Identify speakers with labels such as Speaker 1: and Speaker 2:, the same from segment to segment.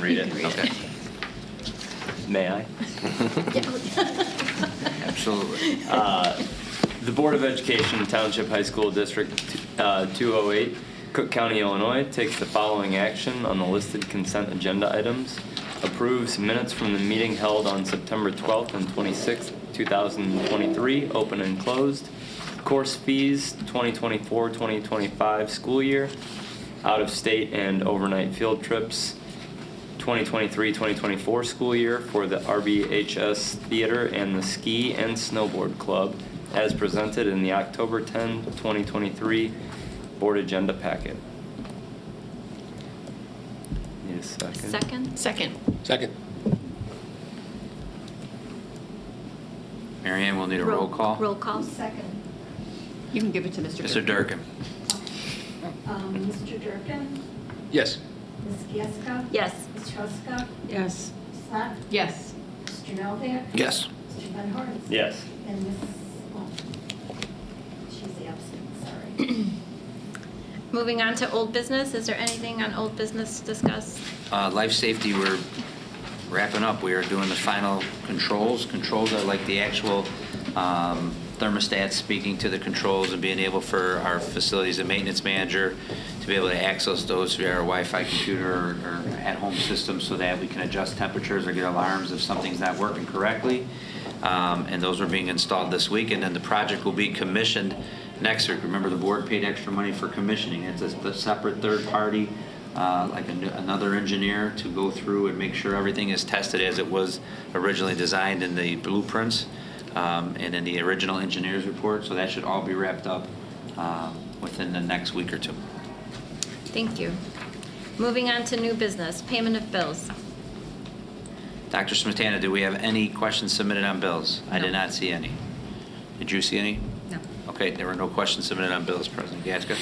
Speaker 1: read it.
Speaker 2: You can read
Speaker 1: Okay. May I?
Speaker 2: Absolutely.
Speaker 1: Uh, The Board of Education Township High School District uh, 208, Cook County, Illinois, takes the following action on the listed consent agenda items. Approves minutes from the meeting held on September 12th and 26th, 2023, open and closed. Course fees, 2024-2025 school year. Out-of-state and overnight field trips, 2023-2024 school year for the RBHS Theater and the Ski and Snowboard Club as presented in the October 10, 2023 Board Agenda Packet. Need a second?
Speaker 3: Second? Second.
Speaker 4: Second.
Speaker 2: Mary Ann, we'll need a roll call.
Speaker 3: Roll call.
Speaker 5: Second.
Speaker 3: You can give it to Mr.
Speaker 2: Mr. Durkin.
Speaker 5: Um, Mr. Durkin?
Speaker 4: Yes.
Speaker 5: Ms. Gieska?
Speaker 3: Yes.
Speaker 5: Ms. Huska?
Speaker 3: Yes.
Speaker 5: Ms. Lot?
Speaker 3: Yes.
Speaker 5: Mr. Novak?
Speaker 4: Yes.
Speaker 5: Mr. Van Horn?
Speaker 1: Yes.
Speaker 5: And Ms. Walton? She's absent, sorry.
Speaker 3: Moving on to old business, is there anything on old business to discuss?
Speaker 2: Uh, Life safety, we're wrapping up. We are doing the final controls. Controls are like the actual um, thermostats speaking to the controls and being able for our facilities and maintenance manager to be able to access those via our Wi-Fi computer or or at-home system so that we can adjust temperatures or get alarms if something's not working correctly. Um, And those are being installed this week, and then the project will be commissioned next week. Remember, the board paid extra money for commissioning. It's a th- separate third-party uh, like a n- another engineer to go through and make sure everything is tested as it was originally designed in the blueprints um, and in the original engineer's report. So that should all be wrapped up um, within the next week or two.
Speaker 3: Thank you. Moving on to new business, payment of bills.
Speaker 2: Dr. Smetana, do we have any questions submitted on bills? I did
Speaker 3: No.
Speaker 2: not see any. Did you see any?
Speaker 3: No.
Speaker 2: Okay, there were no questions submitted on bills, President Gasko.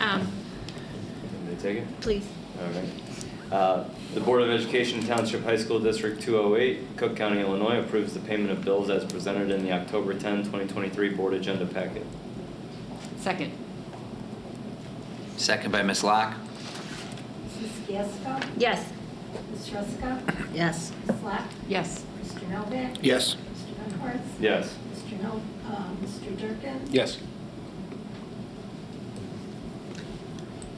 Speaker 3: Um,
Speaker 1: Can they take it?
Speaker 3: Please.
Speaker 1: All right. Uh, The Board of Education Township High School District 208, Cook County, Illinois approves the payment of bills as presented in the October 10, 2023 Board Agenda Packet.
Speaker 6: Second.
Speaker 2: Second by Ms. Locke.
Speaker 5: Ms. Gieska?
Speaker 3: Yes.
Speaker 5: Ms. Huska?
Speaker 6: Yes.
Speaker 5: Ms. Lot?
Speaker 6: Yes.
Speaker 5: Mr. Novak?
Speaker 4: Yes.
Speaker 5: Mr. Van Horn?
Speaker 1: Yes.
Speaker 5: Mr. No, uh, Mr. Durkin?
Speaker 4: Yes.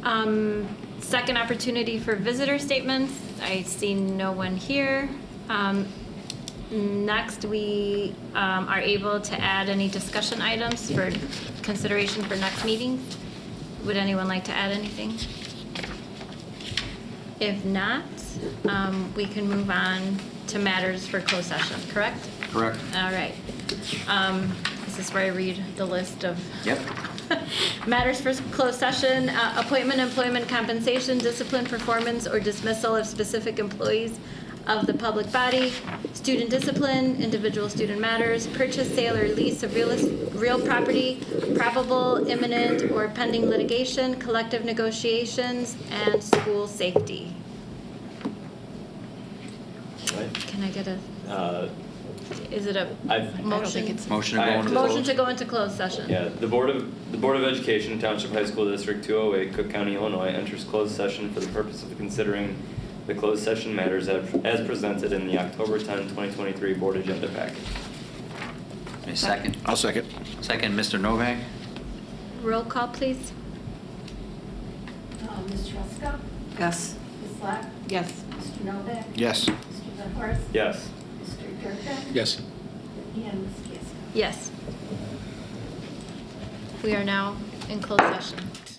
Speaker 3: Um, Second opportunity for visitor statements. I see no one here. Um, Next, we um, are able to add any discussion items for consideration for next meeting. Would anyone like to add anything? If not, um, we can move on to matters for closed session, correct?
Speaker 2: Correct.
Speaker 3: All right. Um, This is where I read the list of.
Speaker 2: Yep.
Speaker 3: Matters for closed session, uh, appointment, employment, compensation, discipline, performance, or dismissal of specific employees of the public body, student discipline, individual student matters, purchase, sale, or lease of real, real property, probable, imminent, or pending litigation, collective negotiations, and school safety.
Speaker 1: All right.
Speaker 3: Can I get a,
Speaker 1: Uh,
Speaker 3: is it a
Speaker 1: I've- I
Speaker 3: motion?
Speaker 1: don't
Speaker 6: think it's-
Speaker 2: Motion to
Speaker 1: I
Speaker 2: go
Speaker 1: have
Speaker 2: into
Speaker 1: to
Speaker 2: closed-
Speaker 3: Motion to go into closed session.
Speaker 1: Yeah, the Board of, the Board of Education, Township High School District 208, Cook County, Illinois, enters closed session for the purpose of considering the closed session matters as as presented in the October 10, 2023 Board Agenda Packet.
Speaker 2: Ms. Second.
Speaker 4: I'll second.
Speaker 2: Second, Mr. Novak.
Speaker 3: Roll call, please.
Speaker 5: Uh, Ms. Huska?
Speaker 6: Yes.
Speaker 5: Ms. Lot?
Speaker 6: Yes.
Speaker 5: Mr. Novak?
Speaker 4: Yes.
Speaker 5: Mr. Van Horn?
Speaker 1: Yes.
Speaker 5: Mr. Durkin?
Speaker 4: Yes.
Speaker 5: And Ms. Gieska?
Speaker 3: Yes. We are now in closed session.